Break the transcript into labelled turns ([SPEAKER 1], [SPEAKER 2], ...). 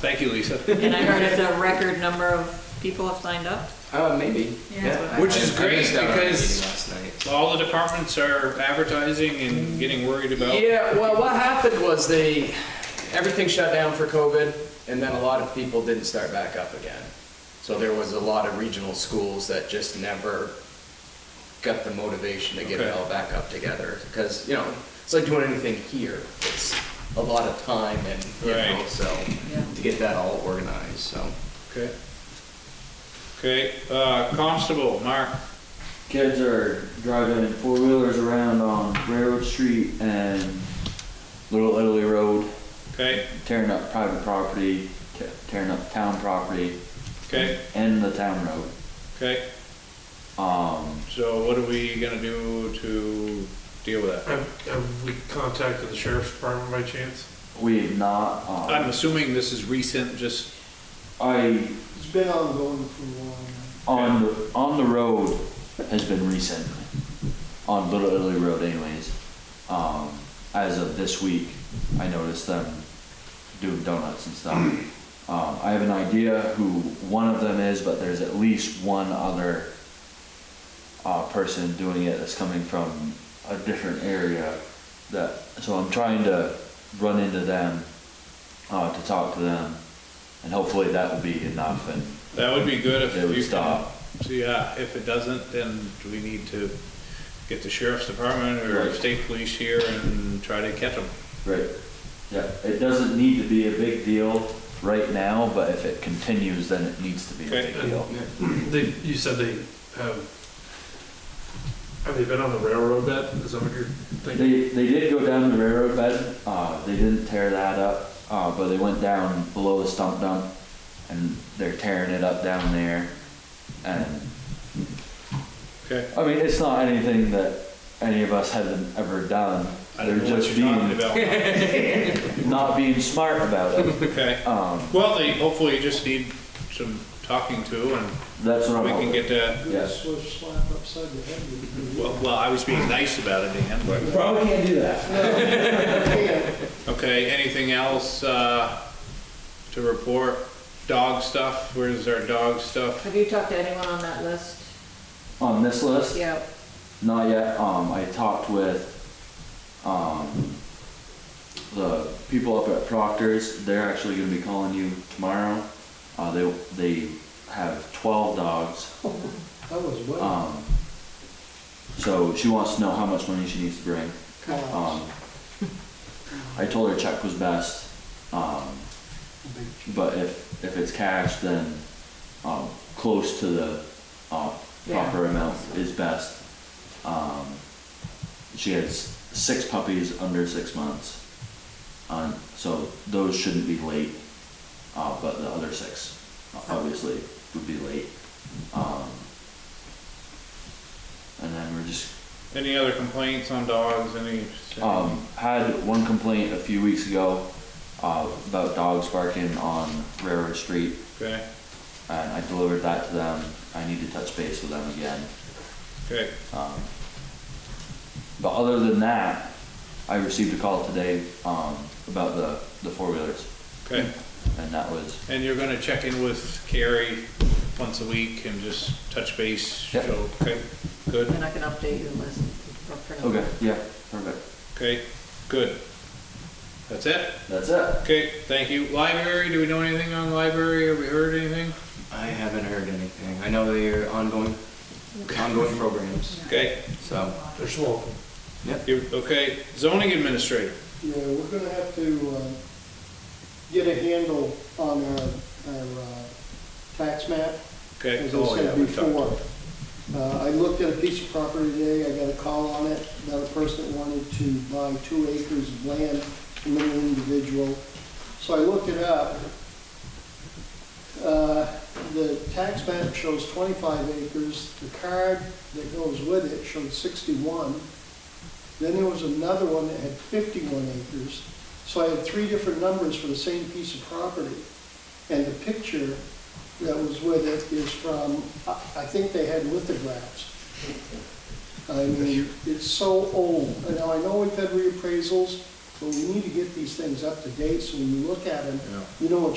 [SPEAKER 1] Thank you, Lisa.
[SPEAKER 2] And I heard it's a record number of people have signed up.
[SPEAKER 3] Uh, maybe.
[SPEAKER 2] Yeah.
[SPEAKER 3] Yeah.
[SPEAKER 1] Which is
[SPEAKER 3] I- I
[SPEAKER 1] great
[SPEAKER 3] missed out on the meeting
[SPEAKER 1] because-
[SPEAKER 3] last night.
[SPEAKER 1] All the departments are advertising and getting worried about.
[SPEAKER 3] Yeah, well, what happened was they, everything shut down for COVID, and then a lot of people didn't start back up again. So there was a lot of regional schools that just never got the motivation to get it
[SPEAKER 1] Okay.
[SPEAKER 3] all back up together. Because, you know, it's like doing anything here. It's a lot of time and, you know,
[SPEAKER 1] Right.
[SPEAKER 3] so,
[SPEAKER 2] Yeah.
[SPEAKER 3] to get that all organized, so.
[SPEAKER 1] Okay. Okay, uh, constable, Mark,
[SPEAKER 4] Kids are driving four wheelers around on Railroad Street and Little Italy Road,
[SPEAKER 1] okay,
[SPEAKER 4] tearing up private property, te- tearing up town property,
[SPEAKER 1] okay,
[SPEAKER 4] and the town road.
[SPEAKER 1] okay.
[SPEAKER 4] Um,
[SPEAKER 1] So what are we gonna do to deal with that?
[SPEAKER 5] Have, have we contacted the sheriff's department by chance?
[SPEAKER 4] we have not,
[SPEAKER 1] I'm
[SPEAKER 4] um,
[SPEAKER 1] assuming this is recent, just,
[SPEAKER 4] I,
[SPEAKER 6] It's been ongoing for a while.
[SPEAKER 4] on, the on the road has been recent, on Little Italy Road anyways. Um, as of this week, I noticed them doing donuts and stuff. Um, I have an idea who one of them is, but there's at least one other uh, person doing it that's coming from a different area. That so I'm trying to run into them uh, to talk to them, and hopefully that will be enough. And
[SPEAKER 1] that would be good if
[SPEAKER 4] They would
[SPEAKER 1] you can.
[SPEAKER 4] stop.
[SPEAKER 1] So yeah, if it doesn't, then do we need to get the sheriff's department or
[SPEAKER 4] Right.
[SPEAKER 1] state police here and try to catch them?
[SPEAKER 4] Right. Yeah, it doesn't need to be a big deal right now, but if it continues, then it needs to be a
[SPEAKER 1] Okay.
[SPEAKER 4] big deal.
[SPEAKER 5] They, you said they have, have they been on the railroad bed? Is that what you're thinking?
[SPEAKER 4] They, they did go down the railroad bed, uh, they didn't tear that up, uh, but they went down below the stump dump and they're tearing it up down there. And,
[SPEAKER 1] Okay,
[SPEAKER 4] I mean, it's not anything that any of us haven't ever done.
[SPEAKER 1] I don't
[SPEAKER 4] They're
[SPEAKER 1] know what
[SPEAKER 4] just
[SPEAKER 1] you're talking
[SPEAKER 4] being,
[SPEAKER 1] about.
[SPEAKER 4] not being smart about it.
[SPEAKER 1] Okay,
[SPEAKER 4] Um,
[SPEAKER 1] well, they, hopefully you just need some talking to and
[SPEAKER 4] that's what I'm
[SPEAKER 1] we can
[SPEAKER 4] hoping.
[SPEAKER 1] get that
[SPEAKER 4] Yes.
[SPEAKER 6] It was slapped upside the head. with-
[SPEAKER 1] Well, well, I was being nice about it, Dan, but,
[SPEAKER 4] Probably can't do that.
[SPEAKER 6] Yeah,
[SPEAKER 1] okay, anything else, uh, to report? Dog stuff, where's our dog stuff?
[SPEAKER 2] Have you talked to anyone on that list?
[SPEAKER 4] On this list?
[SPEAKER 2] Yeah.
[SPEAKER 4] Not yet. Um, I talked with, um, the people up at Proctor's. They're actually gonna be calling you tomorrow. Uh, they, they have twelve dogs.
[SPEAKER 6] That was well.
[SPEAKER 4] Um, so she wants to know how much money she needs to bring. Um, I told her check was best. Um, but if, if it's cash, then, um, close to the, uh, proper
[SPEAKER 2] Yeah.
[SPEAKER 4] amount is best. Um, she has six puppies under six months. Um, so those shouldn't be late, uh, but the other six obviously would be late. Um, and then we're just
[SPEAKER 1] Any other complaints on dogs, any?
[SPEAKER 4] um, had one complaint a few weeks ago uh, about dogs barking on Railroad Street,
[SPEAKER 1] Okay,
[SPEAKER 4] and I delivered that to them. I need to touch base with them again.
[SPEAKER 1] okay,
[SPEAKER 4] Um, but other than that, I received a call today um, about the, the four wheelers,
[SPEAKER 1] okay.
[SPEAKER 4] and that was
[SPEAKER 1] And you're gonna check in with Carrie once a week and just touch base,
[SPEAKER 4] Yep.
[SPEAKER 1] so, okay, good,
[SPEAKER 2] And I can update your list. or print it.
[SPEAKER 4] okay. Yeah, perfect.
[SPEAKER 1] okay, good. That's it?
[SPEAKER 4] That's it.
[SPEAKER 1] Okay, thank you. Library, do we know anything on library? Have we heard anything?
[SPEAKER 3] I haven't heard anything. I know they're ongoing, ongoing programs,
[SPEAKER 1] Okay,
[SPEAKER 3] so.
[SPEAKER 5] They're slow.
[SPEAKER 1] you, okay, zoning administrator.
[SPEAKER 6] Yeah, we're gonna have to, uh, get a handle on our, our, uh, tax map.
[SPEAKER 1] Okay.
[SPEAKER 6] As
[SPEAKER 1] Oh, yeah,
[SPEAKER 6] I said
[SPEAKER 1] we talked.
[SPEAKER 6] before. Uh, I looked at a piece of property today, I got a call on it, about a person that wanted to buy two acres of land from an individual. So I looked it up. Uh, The tax map shows 25 acres, the card that goes with it showed 61. Then there was another one that had 51 acres. So I had three different numbers for the same piece of property. And the picture that was with it is from, I I think they had lithographs. I mean, it's so old. And Now, I know we've had reappraisals, but we need to get these things up to date, so when you look at them,
[SPEAKER 1] Yeah.
[SPEAKER 6] you know what